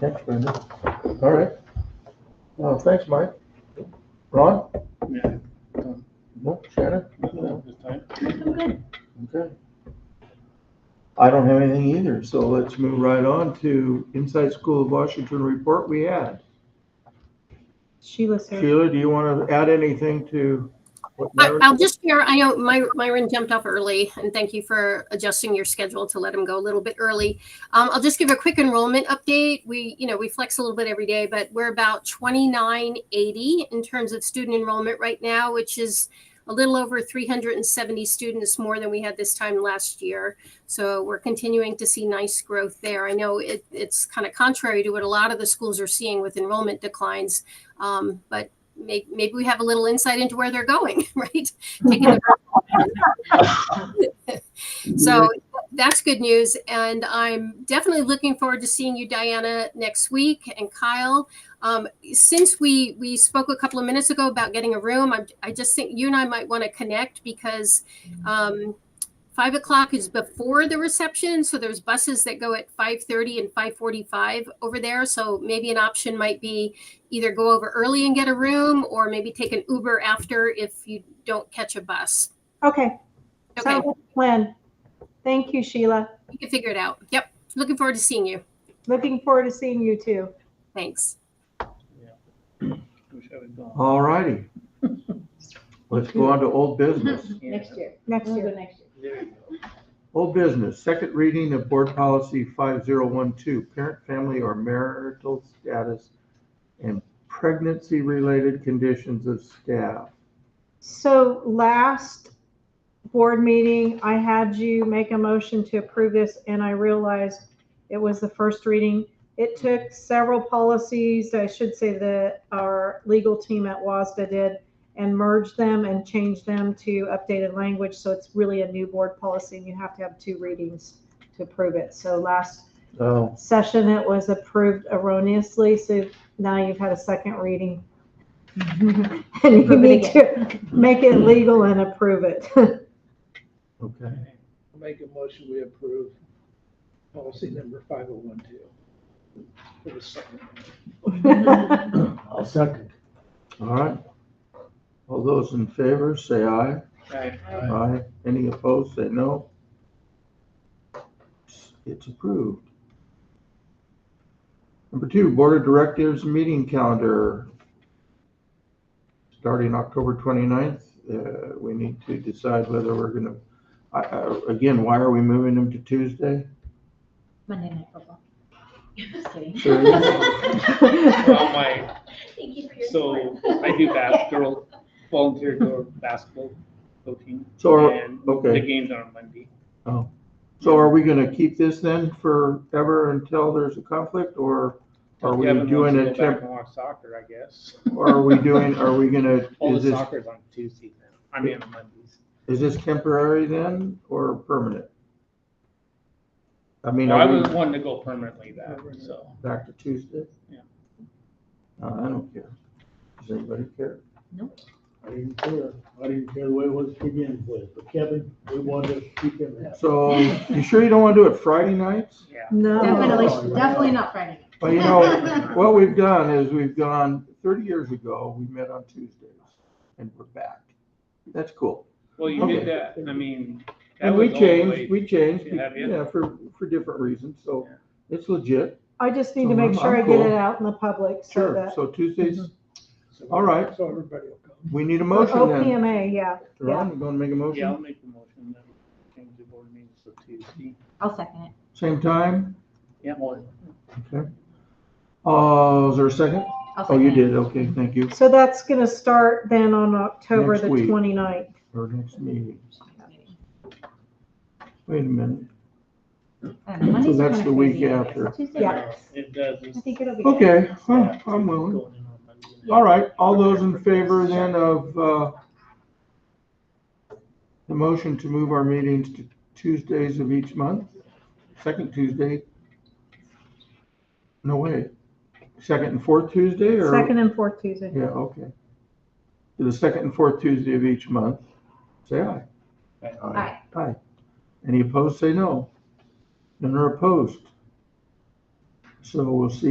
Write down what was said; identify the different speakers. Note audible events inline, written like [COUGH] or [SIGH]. Speaker 1: Thanks, Brenda. All right. Well, thanks, Mike. Ron?
Speaker 2: Yeah.
Speaker 1: Nope. Shannon?
Speaker 2: This time.
Speaker 3: I'm good.
Speaker 1: Okay. I don't have anything either, so let's move right on to Inside School of Washington report we had.
Speaker 3: Sheila, sir.
Speaker 1: Sheila, do you want to add anything to? what
Speaker 4: I-
Speaker 1: Meredith-
Speaker 4: I'll just share, I know My- Myron jumped off early, and thank you for adjusting your schedule to let him go a little bit early. Um, I'll just give a quick enrollment update. We, you know, we flex a little bit every day, but we're about 2980 in terms of student enrollment right now, which is a little over 370 students more than we had this time last year. So we're continuing to see nice growth there. I know it, it's kind of contrary to what a lot of the schools are seeing with enrollment declines, um, but maybe, maybe we have a little insight into where they're going, [LAUGHS] right? Taking the- so that's good news. And I'm definitely looking forward to seeing you, Diana, next week and Kyle. Um, since we, we spoke a couple of minutes ago about getting a room, I, I just think you and I might want to connect because um, five o'clock is before the reception. So there's buses that go at 530 and 545 over there. So maybe an option might be either go over early and get a room or maybe take an Uber after if you don't catch a bus.
Speaker 3: Okay,
Speaker 4: Okay,
Speaker 3: sounds like a plan. Thank you, Sheila.
Speaker 4: we can figure it out. Yep. Looking forward to seeing you.
Speaker 3: Looking forward to seeing you too.
Speaker 4: Thanks.
Speaker 2: Wish I was gone.
Speaker 1: All righty. Let's go on to old business.
Speaker 5: Next year.
Speaker 3: Next
Speaker 5: We'll go
Speaker 3: year.
Speaker 5: next year.
Speaker 2: There you go.
Speaker 1: Old business, second reading of board policy five zero one two, parent, family, or marital status and pregnancy-related conditions of staff.
Speaker 3: So last board meeting, I had you make a motion to approve this and I realized it was the first reading. It took several policies, I should say that our legal team at WASDA did and merged them and changed them to updated language. So it's really a new board policy and you have to have two readings to approve it. So last
Speaker 1: Oh,
Speaker 3: session, it was approved erroneously, so now you've had a second reading. [LAUGHS] And you
Speaker 5: Approve it
Speaker 3: need to make it legal and approve it.
Speaker 1: okay.
Speaker 2: Make a motion, we approve policy number five oh one two. For the second.
Speaker 5: Mm-hmm.
Speaker 1: I'll second. All right. All those in favor, say aye.
Speaker 2: Aye.
Speaker 1: Aye. Any opposed, say no. It's approved. Number two, Board of Directors meeting calendar. Starting October 29th, uh, we need to decide whether we're gonna, I, I, again, why are we moving them to Tuesday?
Speaker 5: Monday night football. [LAUGHS] Just kidding.
Speaker 2: [LAUGHS] Well, my,
Speaker 5: [LAUGHS] Thank you for your
Speaker 2: so
Speaker 5: support.
Speaker 2: I
Speaker 5: [LAUGHS]
Speaker 2: do bas, girl, volunteer girl basketball coaching.
Speaker 1: So are-
Speaker 2: And
Speaker 1: okay.
Speaker 2: the games are on Monday.
Speaker 1: So are we gonna keep this then forever until there's a conflict, or are we
Speaker 2: Kevin wants
Speaker 1: doing
Speaker 2: to
Speaker 1: a
Speaker 2: go back
Speaker 1: temp,
Speaker 2: and watch Soccer, I guess.
Speaker 1: or are we
Speaker 2: [LAUGHS]
Speaker 1: doing, are we gonna,
Speaker 2: All
Speaker 1: is
Speaker 2: the
Speaker 1: this,
Speaker 2: soccer's on Tuesday now. I mean, on Mondays.
Speaker 1: is this temporary then, or permanent? I mean,
Speaker 2: Well, I
Speaker 1: are we
Speaker 2: was wanting to go permanently that, so.
Speaker 1: back to Tuesday?
Speaker 2: Yeah.
Speaker 1: Uh, I don't care. Does anybody care?
Speaker 6: I didn't care. I didn't care the way it was to begin with, but Kevin, we wanted to keep him happy.
Speaker 1: So, you sure you don't wanna do it Friday nights?
Speaker 2: Yeah.
Speaker 3: No,
Speaker 2: Oh,
Speaker 5: Definitely, definitely not Friday.
Speaker 1: Well, you know, what we've done is we've gone, thirty years ago, we met on Tuesdays, and we're back. That's cool.
Speaker 2: Well, you did that,
Speaker 6: Okay.
Speaker 2: I mean. that
Speaker 1: And we
Speaker 2: was all the way-
Speaker 1: changed, we changed,
Speaker 2: to have you.
Speaker 1: yeah, for, for different reasons, so it's legit,
Speaker 3: I just need
Speaker 1: So
Speaker 3: to make
Speaker 1: I'm-
Speaker 3: sure I
Speaker 1: I'm
Speaker 3: get
Speaker 1: cool.
Speaker 3: it out in the public so
Speaker 1: sure,
Speaker 3: that, Mm-hmm.
Speaker 1: so Tuesdays,
Speaker 6: So-
Speaker 1: All right.
Speaker 6: So everybody will come.
Speaker 1: we need a
Speaker 3: Or
Speaker 1: motion then.
Speaker 3: OPMA, yeah.
Speaker 1: Ron, you gonna make a
Speaker 2: Yeah, I'll
Speaker 1: motion?
Speaker 2: make the motion that we change the board meetings to Tuesday.
Speaker 5: I'll second it.
Speaker 1: Same time,
Speaker 2: Yeah.
Speaker 1: okay. Uh, is there a second?
Speaker 5: I'll
Speaker 1: Oh, you
Speaker 5: second it.
Speaker 1: did, okay, thank you,
Speaker 3: So that's gonna start then on October
Speaker 1: Next
Speaker 3: the
Speaker 1: week.
Speaker 3: 29th.
Speaker 1: our next meeting, wait a minute,
Speaker 5: I don't know, Mondays
Speaker 1: So
Speaker 5: are
Speaker 1: that's
Speaker 5: kinda
Speaker 1: the week
Speaker 5: crazy.
Speaker 1: after.
Speaker 5: Tuesday,
Speaker 3: Yeah.
Speaker 5: works.
Speaker 2: It does.
Speaker 5: I think it'll be. good.
Speaker 1: okay, well, I'm willing. All right, all those in favor then of, uh, the motion to move our meetings to Tuesdays of each month, second Tuesday? No, wait, second and fourth Tuesday or?
Speaker 3: Second and fourth Tuesday.
Speaker 1: Yeah, okay. To the second and fourth Tuesday of each month, say aye.
Speaker 2: Aye.
Speaker 5: Aye.
Speaker 1: Aye. Any opposed, say no. None are opposed. So we'll see